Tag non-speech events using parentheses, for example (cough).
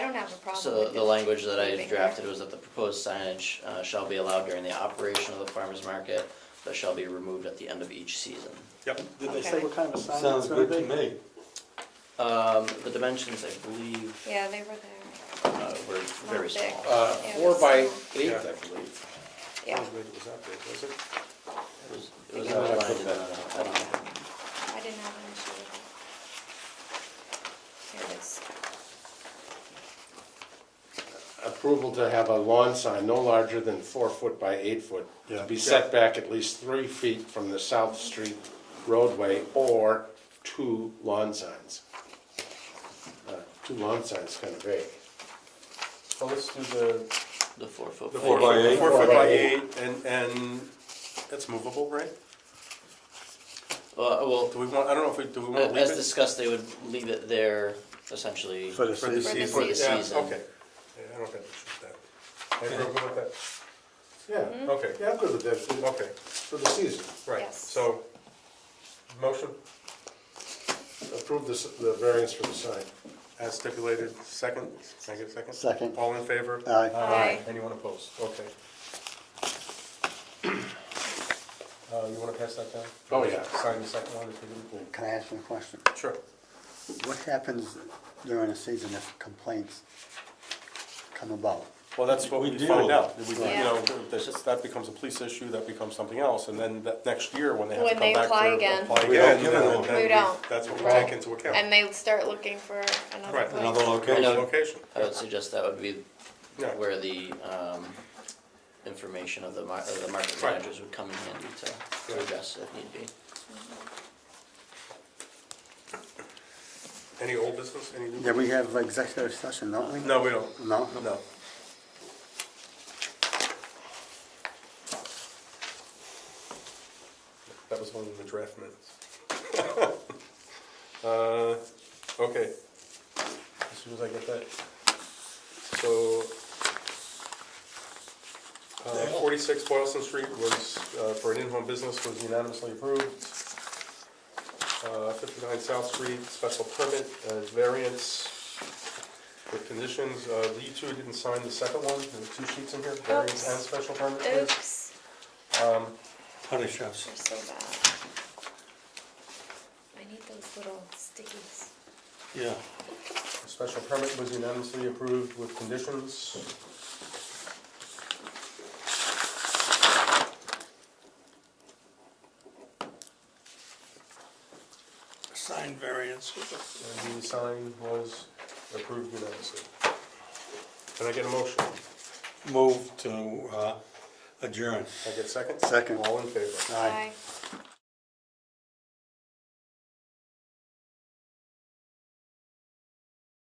problem So with the it language that I leaving there. drafted was that the proposed signage uh, shall be allowed during the operation of the farmer's market, but shall be removed at the end of each season. Yep. Did they say Okay. what kind of a sign Sounds it's gonna good to be? me. Um, The dimensions, I believe, Yeah, they were there. uh, were very Not big. small. Uh, Yeah, four by so- eight, Yeah. I believe. Yeah, Not as big as that big, was it? It was- it was Yeah, I outlined put in uh, that the- in. I don't know. I didn't have an issue with it. Here it is. Approval to have a lawn sign no larger than four foot by eight foot. To Yeah. be set back at least three feet from the South Street roadway or two lawn signs. Uh, Two lawn signs kind of vague. Well, Oh, let's do the. The four foot. The by four eight. by eight. Four foot by by eight. eight, and, and that's movable, right? Uh, Well, Do we want, I don't know if we, do we want to leave Uh, as it? discussed, they would leave it there essentially. For the For the season. season. For the Yeah, season. Okay. Yeah, I don't think we should do that. Everyone good with Yeah, that? Okay, yeah, I'm good with that, okay, for the season. right, Yes. so, motion Approve the, s- the variance for the sign. as stipulated, second, can I get a second? Second. All in favor? uh, Aye. Aye. Anyone opposed? Okay. Uh, you wanna pass that down? Oh, yeah. Sign the second one if you didn't. Can I ask you a question? Sure. What happens during the season if complaints come about? Well, that's what We we deal find with out. We- You Yeah. know, that, that becomes a police issue, that becomes something else, and then that next year, when they have to When come they back apply to again. apply We don't again, give then- them. then We we- don't. that's what we Right. take into account. And they start looking for another Right. Another place. I location. know- Location. I would suggest that would be Yeah. where the um, information of the mar- of the market Right. managers would come in handy to- to Yeah. address if need be. Any old business, any new? Yeah, we have executive session, don't we? No, we don't. No? No. That was one of the draft minutes. (laughs) Uh, Okay. As soon as I get that. So, uh, forty-six Boylston Street was, uh, for an in-home business, was unanimously approved. Uh, 59 South Street, special permit, uh, variance with conditions. Uh, You two didn't sign the second one, there were two sheets in here, variance and special permit. please. Oops, Punish us. they're so bad. I need those little stickies. Yeah. The Special permit was unanimously approved with conditions. Sign variance with it. And the sign was approved unanimously. Can I get a motion? Move to uh, adjourn. Can I get a second? Second. All in favor? Bye.